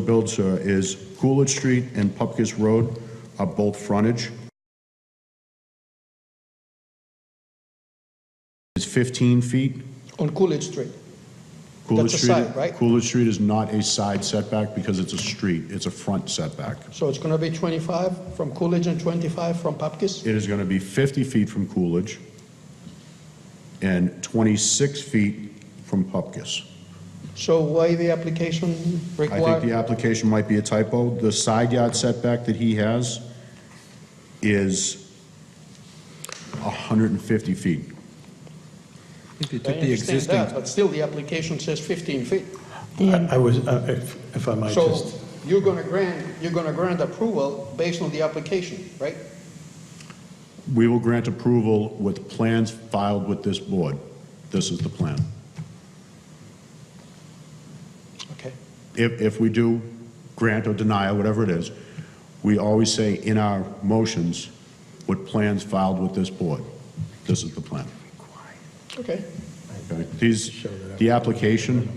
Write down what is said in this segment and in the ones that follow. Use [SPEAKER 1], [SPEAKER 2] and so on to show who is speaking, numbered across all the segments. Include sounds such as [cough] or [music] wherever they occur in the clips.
[SPEAKER 1] build, sir, is Coolidge Street and Pupkus Road are both frontage. It's 15 feet.
[SPEAKER 2] On Coolidge Street.
[SPEAKER 1] Coolidge
[SPEAKER 2] a
[SPEAKER 1] Street-
[SPEAKER 2] side, right?
[SPEAKER 1] Coolidge Street is not a side setback because it's a street, it's a front setback.
[SPEAKER 2] So it's going to be 25 from Coolidge and 25 from Papkis?
[SPEAKER 1] It is going to be 50 feet from Coolidge and 26 feet from Pupkus.
[SPEAKER 2] So why the application
[SPEAKER 1] I think the
[SPEAKER 2] require?
[SPEAKER 1] application might be a typo. The side yard setback that he has is 150 feet.
[SPEAKER 3] If you
[SPEAKER 2] I
[SPEAKER 3] took the
[SPEAKER 2] understand
[SPEAKER 3] existing,
[SPEAKER 2] that, but still the application says 15 feet.
[SPEAKER 4] I I was, uh, if if I might
[SPEAKER 2] So
[SPEAKER 4] just,
[SPEAKER 2] you're going to grant, you're going to grant approval based on the application, right?
[SPEAKER 1] We will grant approval with plans filed with this board. This is the plan.
[SPEAKER 2] Okay.
[SPEAKER 1] If, if we do grant or deny, whatever it is, we always say in our motions, with plans filed with this board. This is the plan.
[SPEAKER 2] Okay.
[SPEAKER 1] Okay? These, the application,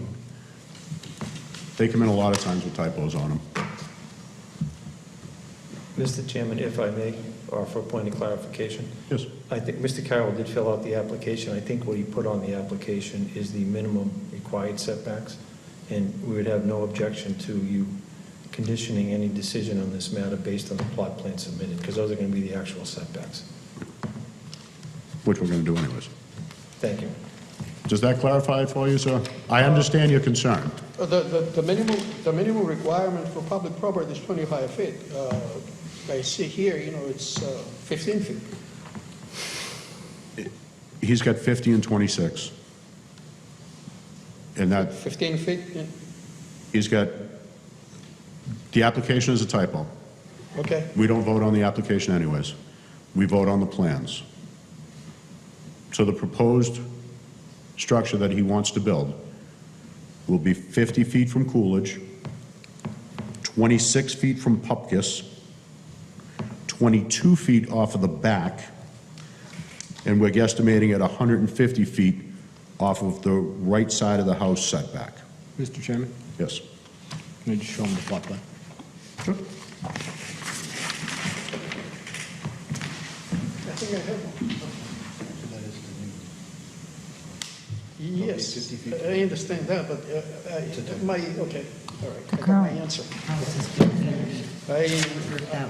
[SPEAKER 1] they come in a lot of times with typos on them.
[SPEAKER 5] Mr. Chairman, if I may, or for a point of clarification,
[SPEAKER 1] Yes.
[SPEAKER 5] I think Mr. Carroll did fill out the application. I think what he put on the application is the minimum required setbacks, and we would have no objection to you conditioning any decision on this matter based on the plot plan submitted, because those are going to be the actual setbacks.
[SPEAKER 1] Which we're going to do anyways.
[SPEAKER 5] Thank you.
[SPEAKER 1] Does that clarify it for you, sir? I understand your concern.
[SPEAKER 2] Uh, The, the, the minimum, the minimum requirement for public property is 25 feet. Uh, I see here, you know, it's uh, 15 feet.
[SPEAKER 1] He's got 50 and 26. And that,
[SPEAKER 2] 15 feet, yeah.
[SPEAKER 1] he's got, the application is a typo.
[SPEAKER 2] okay.
[SPEAKER 1] We don't vote on the application anyways. We vote on the plans. So the proposed structure that he wants to build will be 50 feet from Coolidge, 26 feet from Pupkus, 22 feet off of the back, and we're guesstimating at 150 feet off of the right side of the house setback.
[SPEAKER 3] Mr. Chairman,
[SPEAKER 1] Yes.
[SPEAKER 3] can I just show him the plot plan?
[SPEAKER 2] I think I have one. Yes, I understand that, but uh, I- my, okay, all right, I got my
[SPEAKER 6] Current.
[SPEAKER 2] answer.
[SPEAKER 6] houses.
[SPEAKER 2] I,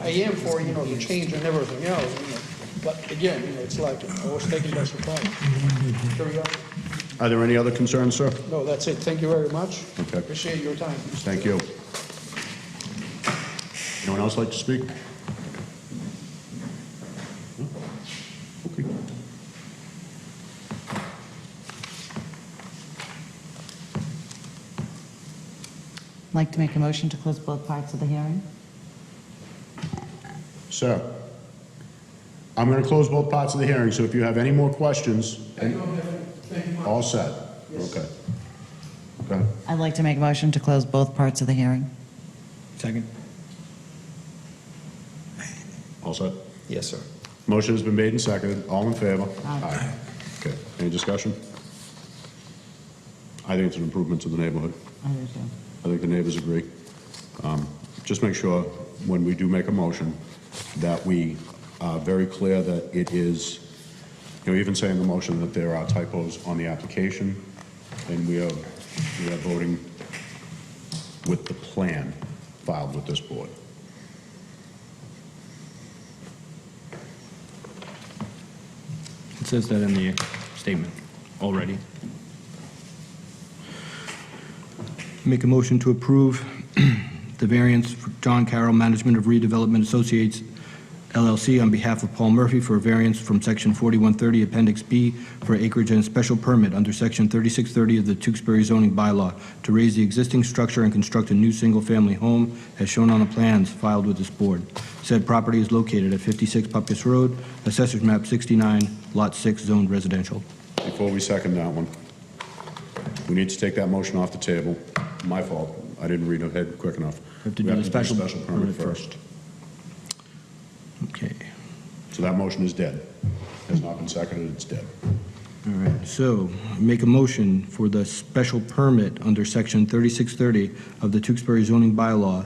[SPEAKER 2] I am for, you know, the change and everything else, you know, but again, you know, it's like, I was taken by surprise. Here we go.
[SPEAKER 1] Are there any other concerns, sir?
[SPEAKER 2] No, that's it, thank you very much.
[SPEAKER 1] Okay.
[SPEAKER 2] Appreciate your time.
[SPEAKER 1] Thank you. Anyone else like to speak? No? Okay.
[SPEAKER 6] I'd Like to make a motion to close both parts of the hearing?
[SPEAKER 1] Sir, I'm going to close both parts of the hearing, so if you have any more questions. All set? Okay. Okay.
[SPEAKER 6] I'd like to make a motion to close both parts of the hearing.
[SPEAKER 3] Second.
[SPEAKER 1] All set?
[SPEAKER 5] Yes, sir.
[SPEAKER 1] Motion has been made and seconded. All in favor?
[SPEAKER 6] Aye.
[SPEAKER 1] Okay. Any discussion? I think it's an improvement to the neighborhood.
[SPEAKER 6] I do too.
[SPEAKER 1] I think the neighbors agree. Um, Just make sure, when we do make a motion, that we are very clear that it is, you know, even saying the motion that there are typos on the application, and we are, we are voting with the plan filed with this board.
[SPEAKER 3] It says that in the statement already. Make a motion to approve [clears throat] the variance for John Carroll Management of Redevelopment Associates LLC on behalf of Paul Murphy for a variance from Section 4130 Appendix B for acreage and special permit under Section 3630 of the Tewksbury zoning bylaw to raise the existing structure and construct a new single-family home as shown on the plans filed with this board. Said property is located at 56 Pupkus Road, Assessors Map 69, Lot 6, Zoned Residential.
[SPEAKER 1] Before we second that one, we need to take that motion off the table. My fault, I didn't read ahead quick enough.
[SPEAKER 3] We have to
[SPEAKER 1] We
[SPEAKER 3] do the special
[SPEAKER 1] permit
[SPEAKER 3] permit
[SPEAKER 1] first.
[SPEAKER 3] Okay.
[SPEAKER 1] So that motion is dead. Has not been seconded, it's dead.
[SPEAKER 3] All right, so make a motion for the special permit under Section 3630 of the Tewksbury zoning bylaw